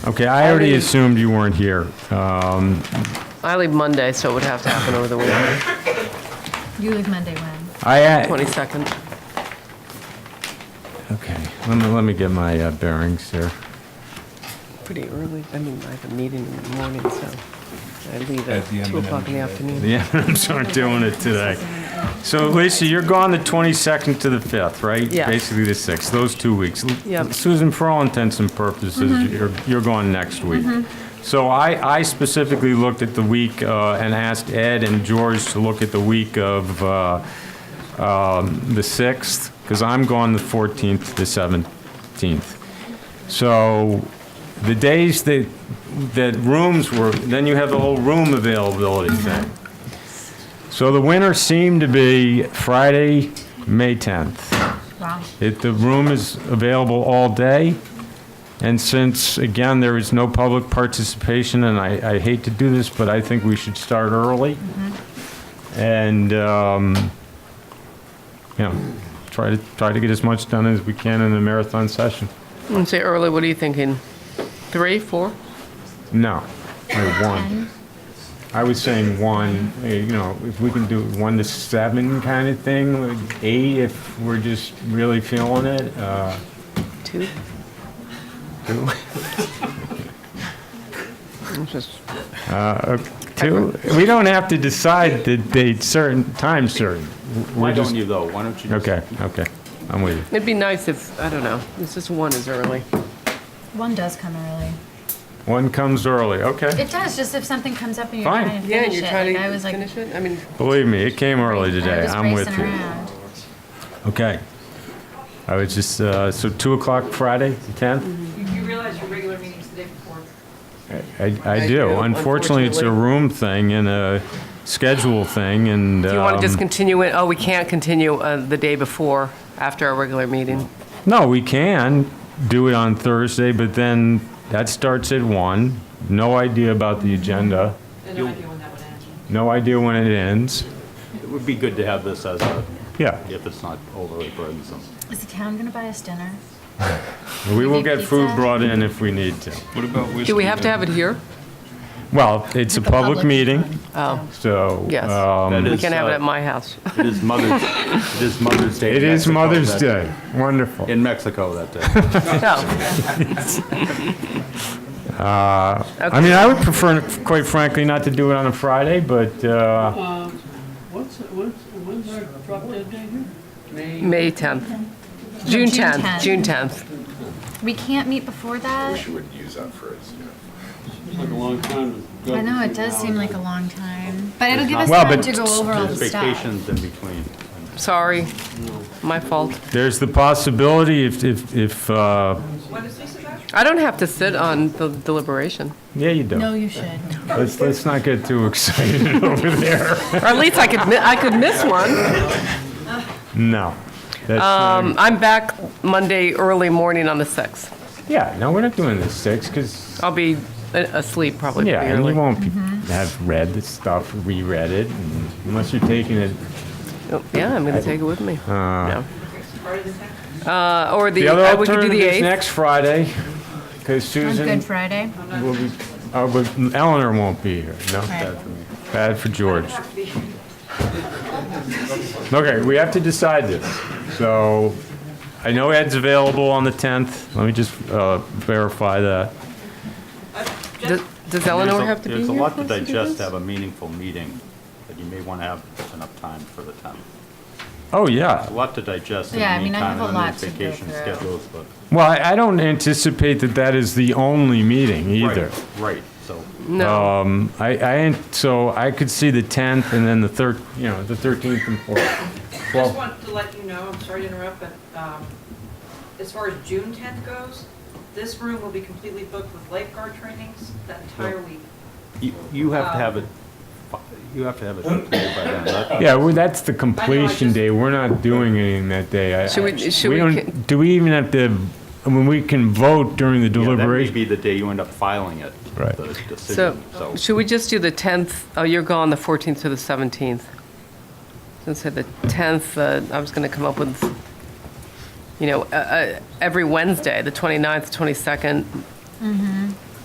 Okay, I already Already- assumed you weren't here. Um, I leave Monday, so it would have to happen over the weekend, You leave Monday when? I, a- 22nd. okay, let me, let me get my uh, bearings here. Pretty early, I mean, I have a meeting in the morning, so I leave At the at 2 M&M's, o'clock in the right? afternoon. Yeah, I'm sort of doing it today. So Lisa, you're gone the 22nd to the 5th, right? Yeah. Basically the 6th, those two weeks. Yep. Susan, for all intents and purposes, you're, you're gone next week. So I, I specifically looked at the week uh, and asked Ed and George to look at the week of uh, um, the 6th, because I'm gone the 14th to the 17th. So the days that, that rooms were, then you have the whole room availability thing. So the winner seemed to be Friday, May 10th. Wow. It, the room is available all day, and since, again, there is no public participation, and I, I hate to do this, but I think we should start early. And, um, you know, try to, try to get as much done as we can in a marathon session. And say early, what are you thinking? 3, 4? No, like one. Ten? I was saying one, eh, you know, if we can do one to seven kind of thing, like eight if we're just really feeling it. uh, 2? Two? I'm just, uh, Two, we don't have to decide the date certain, time certain. Why We're just- don't you though? Why don't you? just- Okay, okay, I'm with you. it'd be nice if, I don't know, it's just 1 is early. One does come early. One comes early, okay. It does, just if something comes up and you're Fine. trying to Yeah, and finish you're it. trying like, I was to like, finish it? I mean, Believe me, it came early I today, was I'm with racing you. around. Okay. I was just, uh, so 2 o'clock Friday, the 10th? You Mm-hmm. you realize your regular meeting's the day before. I, I I do, do. Unfortunately, it's a unfortunately. room thing and a schedule thing and. do you want to just um, continue it? Oh, we can't continue uh, the day before, after our regular meeting. No, we can do it on Thursday, but then that starts at one. No idea about the agenda, And no idea when that would end. no idea when it ends. It would be good to have this as a, Yeah, if it's not overly burdensome. Is the town gonna buy us dinner? we will need get food pizza? brought in if we need to. What about Do we have to have it here? Well, it's a The public meeting, Oh. so. Yes. um, That We is, can have it uh, at my house. It is Mother's, it is Mother's Day. It in is Mexico Mother's that- Day. Wonderful. In Mexico that day. No, I mean, I would prefer, quite frankly, not to do it on a Friday, but, uh, What's, what's, when's our drop dead date here? May 10th. June June 10th, 10th. June 10th. We can't meet before that? It's like a long time to go. I know, it does seem like a long time, but it'll give us Well, time but to go over all There's the stuff. vacations in between. Sorry, my fault. There's the possibility if, if, if, uh, What is this about? I don't have to sit on the deliberation. yeah, you No, do. you should. Let's, let's not get too excited over there. Or at least I could, mi- I could miss one. No. That's, not- Um, I'm back Monday early morning on the 6th. yeah, no, we're not doing the six, because, I'll be a- asleep probably Mm-hmm. yeah, pretty and you early. won't be- have read the stuff, reread it, and unless you're taking it. Oh, Yeah, I'm going to take it with me. Yeah. Uh, Or the, The other uh, we could do alternative the is 8th. next Friday, because On Good Susan Friday? will be, oh, but Eleanor won't be here, no? Right. Bad for George. Okay, we have to decide this. So I know Ed's available on the 10th. Let me just uh, verify that. Does- Does Eleanor There's a- have to be here? There's a lot to for us do digest, to this? have a meaningful meeting, but you may want to have enough time for the time. Oh, A yeah. lot to digest in the Yeah, I mean, I meantime, have a and then lot there's to go vacation through. schedules, but. Well, I I don't anticipate that that is the only meeting either. Right, Right, so No, Um, I, I, ain't- so I could see the 10th and then the 3rd, you know, the 13th and 4th. Just Well, wanted to let you know, I'm sorry to interrupt, but um, as far as June 10th goes, this room will be completely booked with lifeguard trainings that entire week. you, you have to have it, you have to have it completed by then. That- yeah, well, that's the completion day. We're not doing anything that day. I- Should we- I- should we don't- ca- Do we even have to, I mean, we can vote during the Yeah, that may deliberation. be the day you end up filing it. Right. The so, decision, so. should we just do the 10th? Oh, you're gone the 14th to the 17th. Let's say the 10th, uh, I was going to come up with, you know, uh, uh, every Wednesday, the 29th, 22nd,